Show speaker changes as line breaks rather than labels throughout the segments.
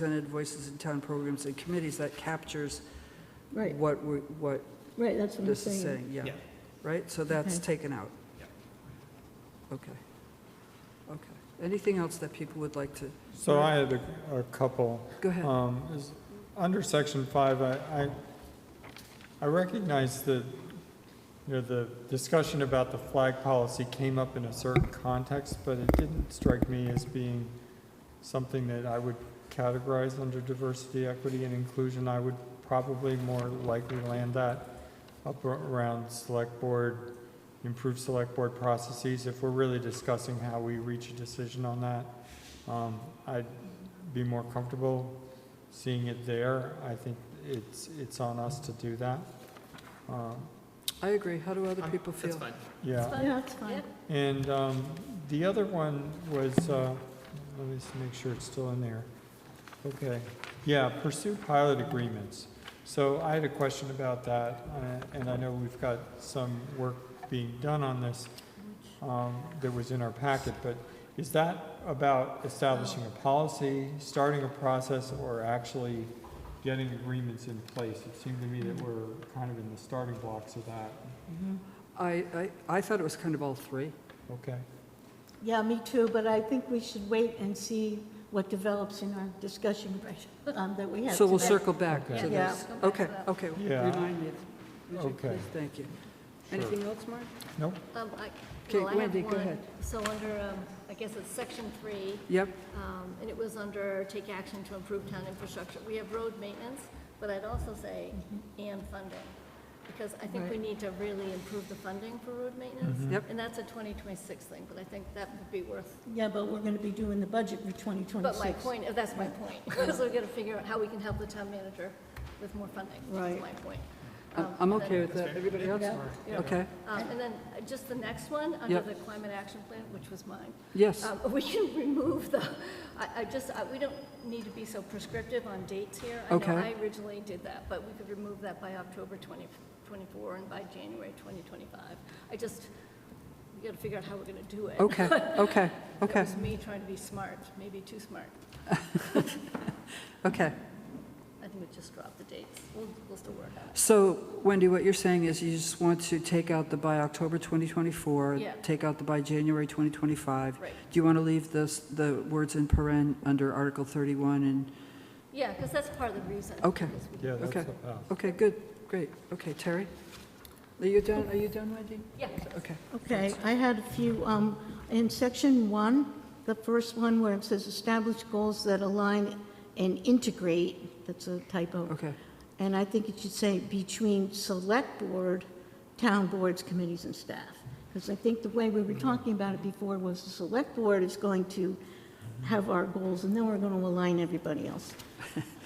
represented voices in town programs and committees, that captures
Right,
what we, what
right, that's what I'm
this is
saying.
saying, yeah.
Yeah.
Right, so that's
Okay.
taken out?
Yeah.
Okay. Okay. Anything else that people would like to,
So I had a, a couple.
go ahead.
Um, is, under section five, I, I, I recognize that, you know, the discussion about the flag policy came up in a certain context, but it didn't strike me as being something that I would categorize under diversity, equity, and inclusion. I would probably more likely land that up ar- around select board, improve select board processes, if we're really discussing how we reach a decision on that. Um, I'd be more comfortable seeing it there. I think it's, it's on us to do that. Um,
I agree. How do other
I'm-
people feel?
That's fine.
Yeah,
Yeah, that's fine.
Yep.
and um, the other one was, uh, let me just make sure it's still in there. Okay, yeah, pursue pilot agreements. So I had a question about that, uh, and I know we've got some work being done on this um, that was in our packet, but is that about establishing a policy, starting a process, or actually getting agreements in place? It seemed to me that we're kind of in the starting blocks of that.
I, I, I thought it was kind of all three.
Okay,
Yeah, me too, but I think we should wait and see what develops in our discussion um, that we have
So we'll
tonight.
circle back to
Okay.
Yeah.
this.
Go back to
Okay,
that.
okay.
Yeah.
Remind me. Would you
Okay.
please? Thank you.
Sure.
Anything else, Mark?
nope.
Um, I-
Okay,
well, I have
Wendy, go
one.
ahead.
So under, um, I guess it's section three,
Yep,
um, and it was under take action to improve town infrastructure. We have road maintenance, but I'd also say
Mm-hmm.
and funding, because I think we need to really improve the funding for road maintenance.
Mm-hmm. Yep.
And that's a 2026 thing, but I think that would be worth,
Yeah, but we're going to be doing the budget for 2026.
but my point, uh, that's my point. So we've got to figure out how we can help the town manager with more funding.
Right.
That's my point.
I'm
Um,
I'm
and
okay
then-
with that. Everybody else?
Yeah.
Okay,
Um, And then uh, just the next one, under
Yep.
the climate action plan, which was mine,
yes.
um, we can remove the, I, I just, I- we don't need to be so prescriptive on dates here.
Okay.
I know I originally did that, but we could remove that by October 2024 and by January 2025. I just, we got to figure out how we're going to do it.
Okay, okay, okay,
That was me trying to be smart, maybe too smart.
okay.
I think we just drop the dates. We'll, we'll still work on it.
So Wendy, what you're saying is you just want to take out the by October 2024?
Yeah.
Take out the by January 2025?
Right.
Do you want to leave this, the words in paren under Article 31 and,
Yeah, because that's part of the reason.
Okay.
because we-
Yeah, that's uh,
Okay.
the path.
okay, good, great. Okay, Terry? Are you done, are you done, Wendy?
Yeah.
Okay.
Okay, I had a few, um, in section one, the first one where it says establish goals that align and integrate, that's a typo.
Okay.
And I think it should say between select board, town boards, committees, and staff. Because I think the way we were talking about it before was the select board is going to have our goals, and then we're going to align everybody else.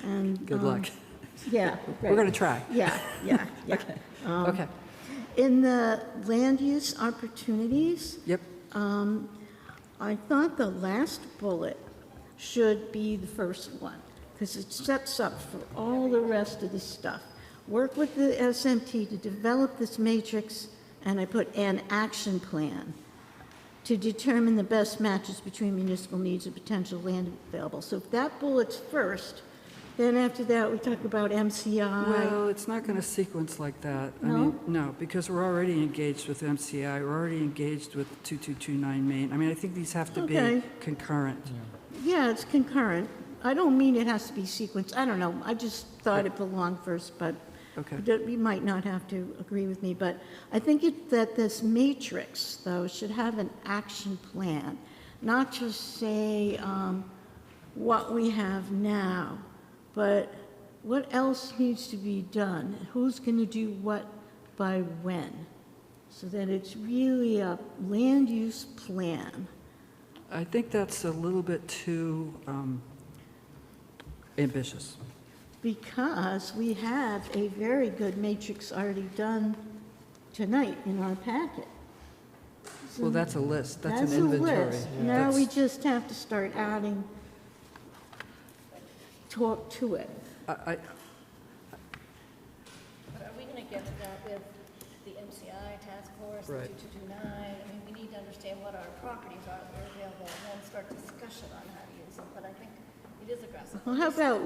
And,
Good
um,
luck.
Yeah.
We're going to try.
Yeah, yeah, yeah. Um,
Okay,
In the land use opportunities,
yep,
um, I thought the last bullet should be the first one, because it sets up for all the rest of the stuff. Work with the SMT to develop this matrix, and I put an action plan to determine the best matches between municipal needs and potential land available. So if that bullet's first, then after that, we talk about MCI.
Well, it's not going to sequence like that. I
uh, No?
mean, No, because we're already engaged with MCI, we're already engaged with 2229 Main. I mean, I think these have to be
Okay.
concurrent.
Yeah, it's concurrent. I don't mean it has to be sequenced. I don't know. I just thought it belonged first, but
Okay.
That You might not have to agree with me, but I think it- that this matrix, though, should have an action plan, not just say um, what we have now, but what else needs to be done? Who's going to do what by when? So that it's really a land use plan.
I think that's a little bit too um, ambitious.
Because we have a very good matrix already done tonight in our packet.
Well, that's a list, that's
That's
an
Mm. a
inventory.
list.
Yeah,
Now
that's-
we just have to start adding talk to it.
I- I-
But are we going to get to that with the MCI task force, the
Right.
2229? I mean, we need to understand what our properties are that are available, and then start discussion on how to use them. But I think
It is aggressive.
Well, how about